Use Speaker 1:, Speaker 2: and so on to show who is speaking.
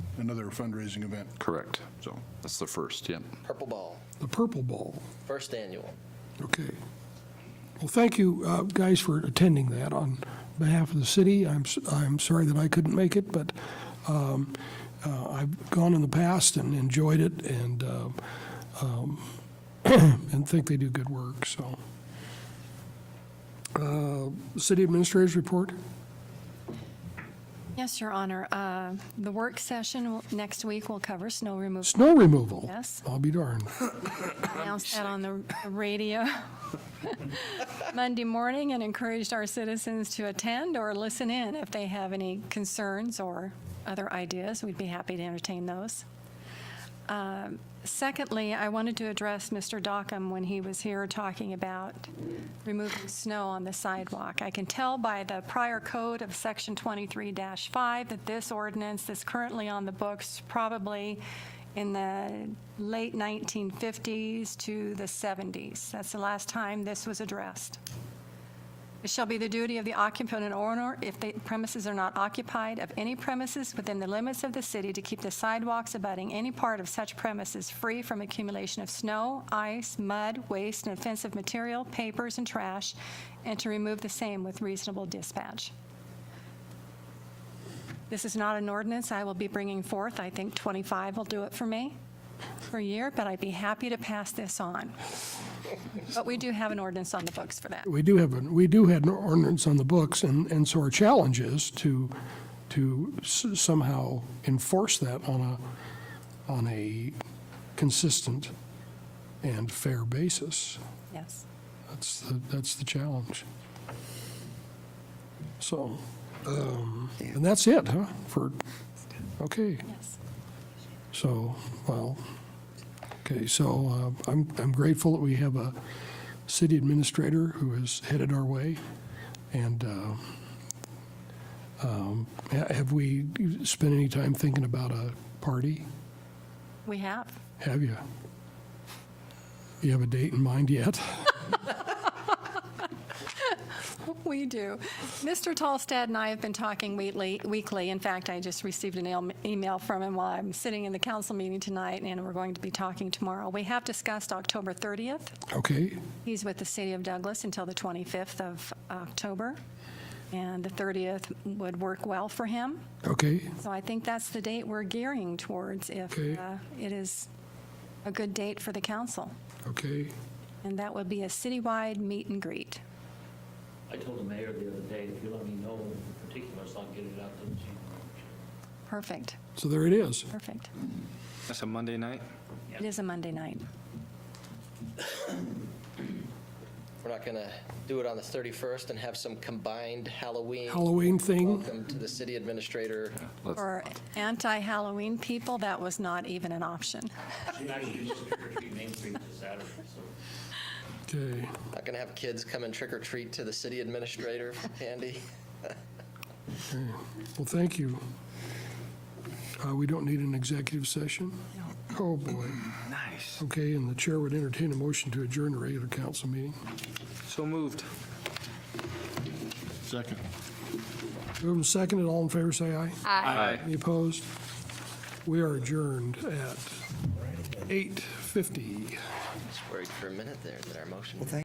Speaker 1: another fundraising event.
Speaker 2: Correct.
Speaker 1: So
Speaker 2: That's the first, yeah.
Speaker 3: Purple Ball,
Speaker 4: the Purple Ball.
Speaker 3: first annual.
Speaker 4: Okay. Well, thank you, uh, guys, for attending that on behalf of the city. I'm, s- I'm sorry that I couldn't make it, but um, uh, I've gone in the past and enjoyed it and, uh, um, and think they do good work, so. Uh, City Administrator's report?
Speaker 5: Yes, Your Honor. Uh, The work session w- next week will cover snow removal.
Speaker 4: Snow removal?
Speaker 5: Yes.
Speaker 4: I'll be darned.
Speaker 5: announced that on the the radio Monday morning and encouraged our citizens to attend or listen in if they have any concerns or other ideas. We'd be happy to entertain those. Um, Secondly, I wanted to address Mr. Dockham when he was here talking about removing snow on the sidewalk. I can tell by the prior code of Section 23-5 that this ordinance that's currently on the books probably in the late 1950s to the 70s. That's the last time this was addressed. It shall be the duty of the occupant and owner, if the premises are not occupied, of any premises within the limits of the city to keep the sidewalks abutting any part of such premises free from accumulation of snow, ice, mud, waste, and offensive material, papers, and trash, and to remove the same with reasonable dispatch. This is not an ordinance I will be bringing forth. I think 25 will do it for me per year, but I'd be happy to pass this on. But we do have an ordinance on the books for that.
Speaker 4: We do have, an- we do have an ordinance on the books, and, and so our challenge is to, to s- somehow enforce that on a, on a consistent and fair basis.
Speaker 5: Yes.
Speaker 4: That's, the that's the challenge. So, um, and that's it, huh, for, okay.
Speaker 5: Yes.
Speaker 4: So, well, okay, so uh, I'm I'm grateful that we have a city administrator who is headed our way, and uh, um, ha- have we spent any time thinking about a party?
Speaker 5: We have.
Speaker 4: Have you? You have a date in mind yet?
Speaker 5: We do. Mr. Tolstad and I have been talking weekly, weekly. In fact, I just received an el- email from him while I'm sitting in the council meeting tonight, and we're going to be talking tomorrow. We have discussed October 30th.
Speaker 4: Okay,
Speaker 5: He's with the city of Douglas until the 25th of October, and the 30th would work well for him.
Speaker 4: okay,
Speaker 5: So I think that's the date we're gearing towards if
Speaker 4: Okay.
Speaker 5: uh, it is a good date for the council.
Speaker 4: okay.
Speaker 5: And that would be a citywide meet and greet.
Speaker 6: I told the mayor the other day, if you let me know the particulars, I'll get it out to the chief.
Speaker 5: Perfect,
Speaker 4: So there it is.
Speaker 5: perfect.
Speaker 7: That's a Monday night?
Speaker 5: It is a Monday night.
Speaker 3: We're not going to do it on the 31st and have some combined Halloween.
Speaker 4: Halloween thing,
Speaker 3: Welcome to the city administrator.
Speaker 5: For anti-Halloween people, that was not even an option.
Speaker 6: She actually used to trick or treat Main Street this Saturday, so.
Speaker 4: okay.
Speaker 3: Not going to have kids come and trick or treat to the city administrator, Andy.
Speaker 4: Well, thank you. Uh, We don't need an executive session? Oh, boy. Nice. Okay, and the chair would entertain a motion to adjourn the regular council meeting.
Speaker 7: So moved.
Speaker 1: Second.
Speaker 4: Move and second, and all in favor, say aye.
Speaker 7: Aye.
Speaker 4: Any opposed? We are adjourned at 8:50.
Speaker 3: Just worried for a minute there that our motion.